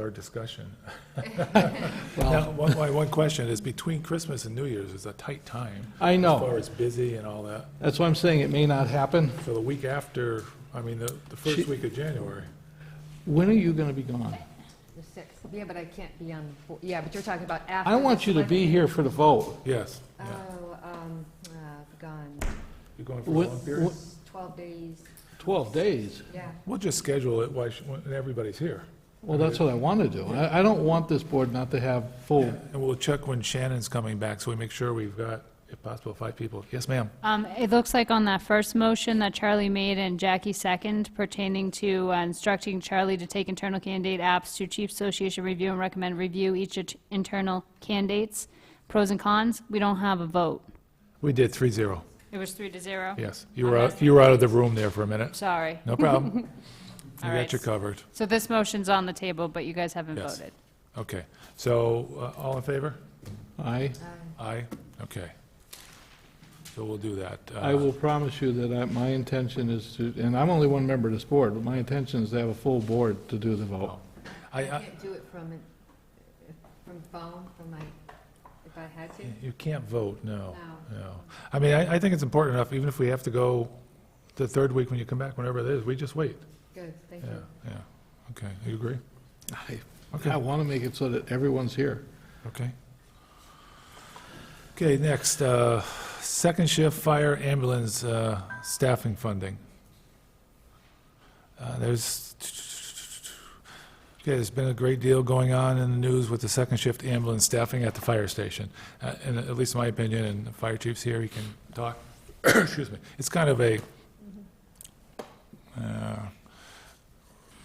our discussion. Now, one, my one question is, between Christmas and New Year's is a tight time. I As far know. as busy and all that. That's why I'm saying it may not happen. So the week after, I mean, the, the She- first week of January. When are you going to be gone? The sixth, yeah, but I can't be on, the fo- yeah, but you're talking about after. I the want you to be select- here for the vote. Yes, Uh, yeah. Oh, um, uh, gone, You're going for a What- long period? what- twelve days, 12 days. yeah. We'll just schedule it while, she- when everybody's here. Well, that's what I want to do. I I don't want this board not to have full, And we'll check when Shannon's coming back, so we make sure we've got, if possible, five people. Yes, ma'am? Um, It looks like on that first motion that Charlie made and Jackie second pertaining to uh, instructing Charlie to take internal candidate apps to Chief Association review and recommend review each it- internal candidates, pros and cons, we don't have a vote. We did three zero, It was three to zero? yes. You were out, you were out of the room there for a minute. Sorry. No problem. You All got right. you covered. So this motion's on the table, but you guys haven't Yes. voted. Okay. So, uh, all in favor? I, Aye? Okay. So we'll do that. Uh, I will promise you that I- my intention is to, and I'm only one member of this board, but my intention is to have a full board to do the vote. Uh, I, I I, can't do it from, it- from phone, from my, if I had to. you can't vote, no, No. no. I mean, I, I think it's important enough, even if we have to go the third week when you come back, whenever it is, we just wait. Good, thank Yeah, you. yeah. Okay, you agree? I- Okay. I want to make it so that everyone's here. Okay. Okay, next, uh, second shift fire ambulance uh, staffing funding. Uh, There's, okay, there's been a great deal going on in the news with the second shift ambulance staffing at the fire station. Uh, And at least in my opinion, and the fire chief's here, he can talk, excuse me, it's kind of a uh,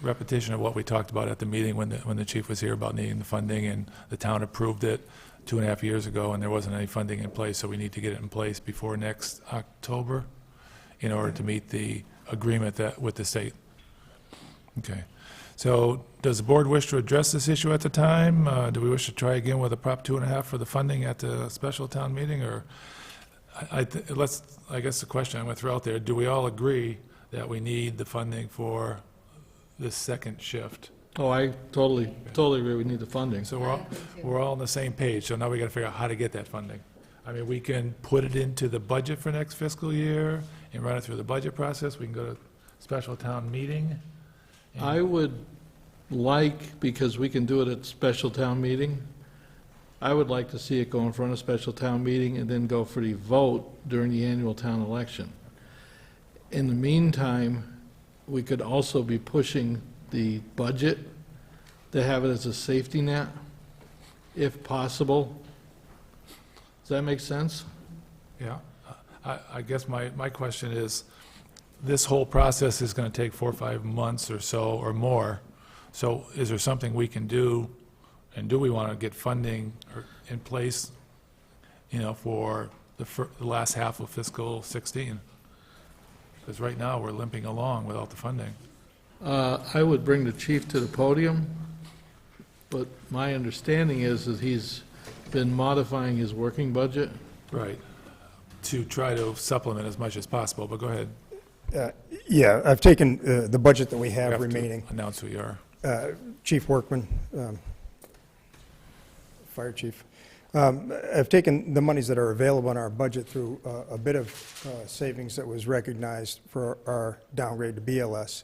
repetition of what we talked about at the meeting when the, when the chief was here about needing the funding, and the town approved it two and a half years ago, and there wasn't any funding in place, so we need to get it in place before next October in order to meet the agreement that, with the state. Okay. So does the board wish to address this issue at the time? Uh, Do we wish to try again with a Prop two and a half for the funding at the special town meeting, or? I, I th- let's, I guess the question I'm going to throw out there, do we all agree that we need the funding for this second shift? Oh, I totally, totally agree, we need the funding. So we're all, we're all on the same page, so now we got to figure out how to get that funding. I mean, we can put it into the budget for next fiscal year and run it through the budget process, we can go to special town meeting. and- I would like, because we can do it at special town meeting, I would like to see it go in front of special town meeting and then go for the vote during the annual town election. In the meantime, we could also be pushing the budget to have it as a safety net, if possible. Does that make sense? Yeah, I, I guess my, my question is, this whole process is going to take four or five months or so or more. So is there something we can do, and do we want to get funding or- in place, you know, for the, fir- the last half of fiscal 16? Because right now, we're limping along without the funding. Uh, I would bring the chief to the podium, but my understanding is that he's been modifying his working budget. Right. To try to supplement as much as possible, but go ahead. Uh, Yeah, I've taken uh, the budget that we You have to remaining, Announce who you are. Uh, Chief Workman, um, Fire Chief. Um, I've taken the monies that are available in our budget through uh, a bit of uh, savings that was recognized for our downgrade to BLS,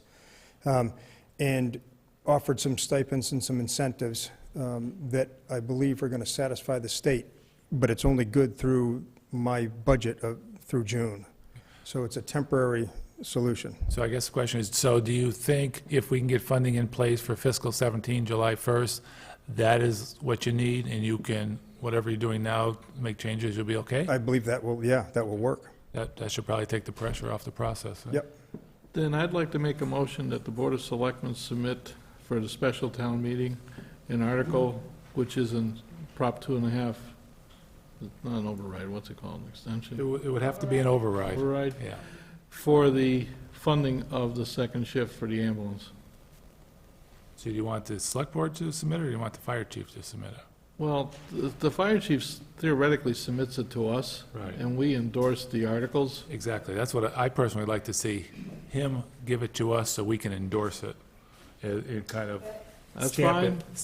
um, and offered some stipends and some incentives um, that I believe are going to satisfy the state, but it's only good through my budget of- through June. So it's a temporary solution. So I guess the question is, so do you think if we can get funding in place for fiscal 17, July 1st, that is what you need, and you can, whatever you're doing now, make changes, you'll be okay? I believe that will, yeah, that will work. That, that should probably take the pressure off the process. huh? Yep. Then I'd like to make a motion that the Board of Selectmen submit for the special town meeting an article which is in Prop two and a half, not an override, what's it called, an It extension? would, it would have to be an override, Override, yeah. for the funding of the second shift for the ambulance. So do you want the select board to submit, it, or do you want the fire chief to submit it? Well, the- the fire chief theoretically submits it to us, Right. and we endorse the articles. Exactly, that's what I personally would like to see, him give it to us so we can endorse it. It, it kind of That's Stamp it. fine.